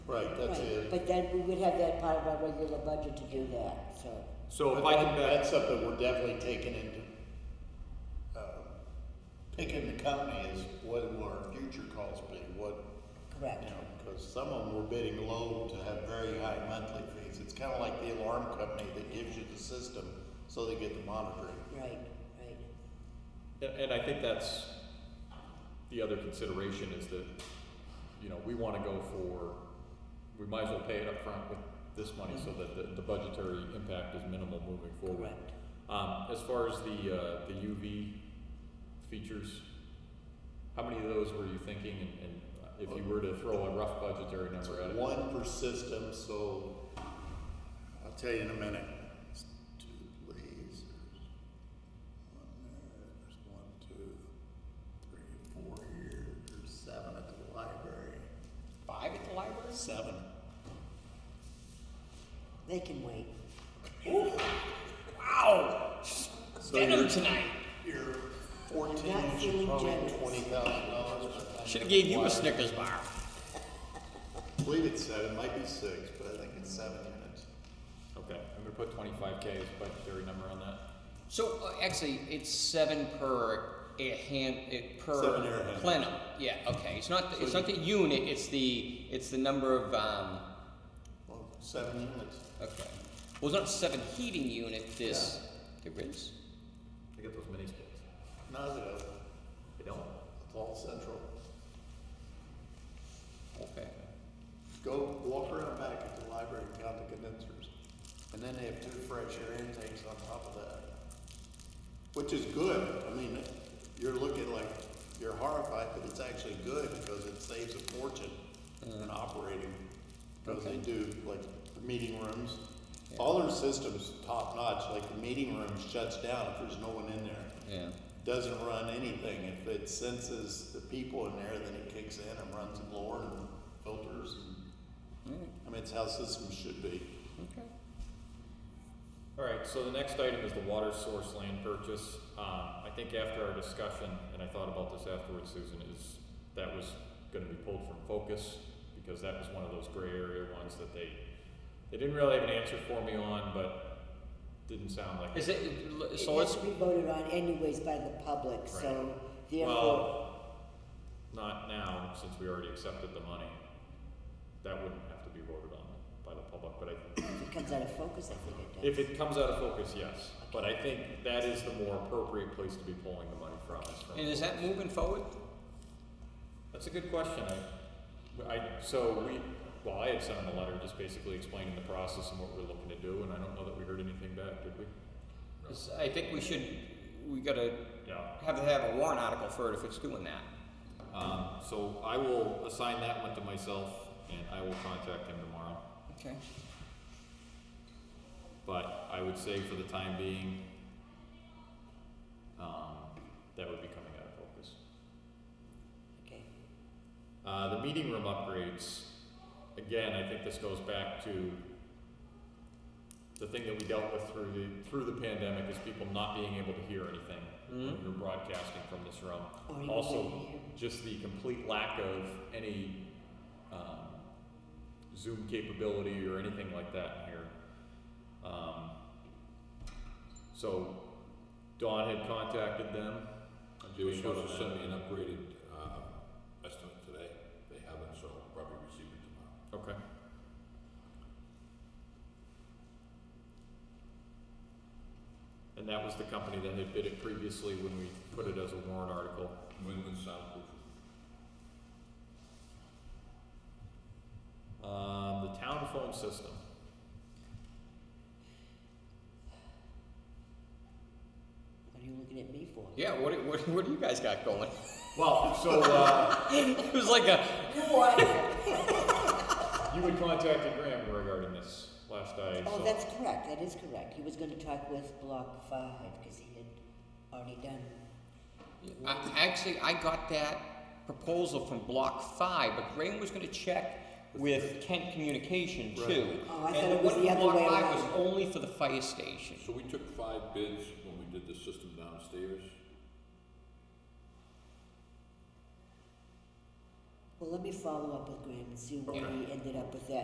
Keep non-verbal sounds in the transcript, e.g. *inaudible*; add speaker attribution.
Speaker 1: Right, that's
Speaker 2: Right,
Speaker 1: it.
Speaker 2: But then we would have that part of our regular budget to do that, so.
Speaker 3: So if
Speaker 1: But
Speaker 3: I
Speaker 1: that-
Speaker 3: can back,
Speaker 1: That's something we're definitely taking into, uh, picking the company is what will our future costs be, what, you
Speaker 2: Correct.
Speaker 1: know, because some of them were bidding low to have very high monthly fees. It's kind of like the alarm company that gives you the system so they get the monitoring.
Speaker 2: Right, right.
Speaker 3: and I think that's the other consideration is that, you know, we wanna go for, we might as well pay it up front with this money so that the, the budgetary impact is minimal moving forward.
Speaker 2: Correct.
Speaker 3: Um, as far as the, uh, the UV features, how many of those were you thinking and, and if you were to throw a rough budgetary number at it?
Speaker 1: One per system, so I'll tell you in a minute. It's Two lasers. One there, there's one, two, three, four here, there's seven at the library.
Speaker 3: Five at the library?
Speaker 1: Seven.
Speaker 2: They can wait.
Speaker 1: So you're tonight. You're fourteen,
Speaker 2: I'm not
Speaker 1: should
Speaker 2: feeling
Speaker 1: probably
Speaker 2: generous.
Speaker 1: twenty thousand dollars.
Speaker 4: Should have gave you a Snickers bar.
Speaker 1: I believe it's seven, might be six, but I think it's seven units.
Speaker 3: Okay, I'm gonna put twenty-five K as a budgetary number on that.
Speaker 4: So uh, actually, it's seven per a hand it, per
Speaker 1: Seven air hand.
Speaker 4: plenum. Yeah. Okay. It's not. The, it's not the unit. It's the. It's the number of. Um,
Speaker 1: Well, seven units.
Speaker 4: okay. Well, it's not seven heating unit. This. There is.
Speaker 3: They get those mini splits.
Speaker 1: No, they don't.
Speaker 3: They don't?
Speaker 1: It's all central.
Speaker 4: Okay.
Speaker 1: Go walk around back at the library and count the condensers. And then they have two fresh air intakes on top of that. Which is good. I mean, you're looking like you're horrified, but it's actually good because it saves a fortune in operating. Because they
Speaker 4: Okay.
Speaker 1: do like the meeting rooms. All their systems top notch, like the meeting room shuts down if there's no one in there
Speaker 4: Yeah.
Speaker 1: doesn't run anything. If it senses the people in there, then it kicks in and runs a blower and filters. And, I mean, it's how systems should be.
Speaker 4: Okay.
Speaker 3: All right, so the next item is the water source land purchase. Um, I think after our discussion, and I thought about this afterwards, Susan, is that was gonna be pulled from focus because that was one of those gray area ones that they, they didn't really have an answer for me on, but didn't sound like.
Speaker 4: Is it? So
Speaker 2: It has
Speaker 4: it's.
Speaker 2: to be voted on anyways by the public, so therefore,
Speaker 3: Well, not now, since we already accepted the money. That wouldn't have to be voted on by the public, but I,
Speaker 2: if it comes out of focus, I think it does.
Speaker 3: If it comes out of focus, yes, but I think that is the more appropriate place to be pulling the money from, is from.
Speaker 4: And is that moving forward?
Speaker 3: That's a good question, I, I, so we, well, I had sent him a letter just basically explaining the process and what we're looking to do, and I don't know that we heard anything back, did we?
Speaker 4: 'Cause I think we should. We gotta
Speaker 3: Yeah.
Speaker 4: have to have a warrant article for it if it's doing that.
Speaker 3: Um, so I will assign that one to myself, and I will contact him tomorrow,
Speaker 4: Okay.
Speaker 3: but I would say for the time being, um, that would be coming out of focus.
Speaker 2: Okay.
Speaker 3: Uh, the meeting room upgrades, again, I think this goes back to the thing that we dealt with through the, through the pandemic is people not being able to hear anything when
Speaker 4: Mhm.
Speaker 3: you're broadcasting from this room.
Speaker 2: Or even
Speaker 3: Also,
Speaker 2: wait here.
Speaker 3: just the complete lack of any, um, Zoom capability or anything like that in here. Um, so Dawn had contacted them.
Speaker 5: They were
Speaker 3: We go to
Speaker 5: supposed to
Speaker 3: that.
Speaker 5: send me an upgraded, uh, estimate today, they haven't, so I'll probably receive it tomorrow.
Speaker 3: Okay. And that was the company that had bid it previously when we put it as a warrant article.
Speaker 5: New England soundproof,
Speaker 3: Um, the town phone system.
Speaker 2: What are you looking at me for? *laughs*
Speaker 4: Yeah. What, do- what, what do you guys got going?
Speaker 3: Well, so, uh, *laughs*
Speaker 4: it was like a.
Speaker 3: you had contacted Graham regarding this last I,
Speaker 2: Oh,
Speaker 3: so.
Speaker 2: that's correct, that is correct. He was gonna talk with Block Five, because he had already done.
Speaker 4: I, actually, I got that proposal from Block Five, but Graham was gonna check with Kent Communication too.
Speaker 2: Oh, I
Speaker 4: And
Speaker 2: thought it was
Speaker 4: one
Speaker 2: the
Speaker 4: from
Speaker 2: other way
Speaker 4: Block Five
Speaker 2: around.
Speaker 4: was only for the fire station.
Speaker 5: so we took five bids when we did the system downstairs,
Speaker 2: Well, Well, let me follow up with Graham and see where
Speaker 5: Okay.
Speaker 2: he ended up with that.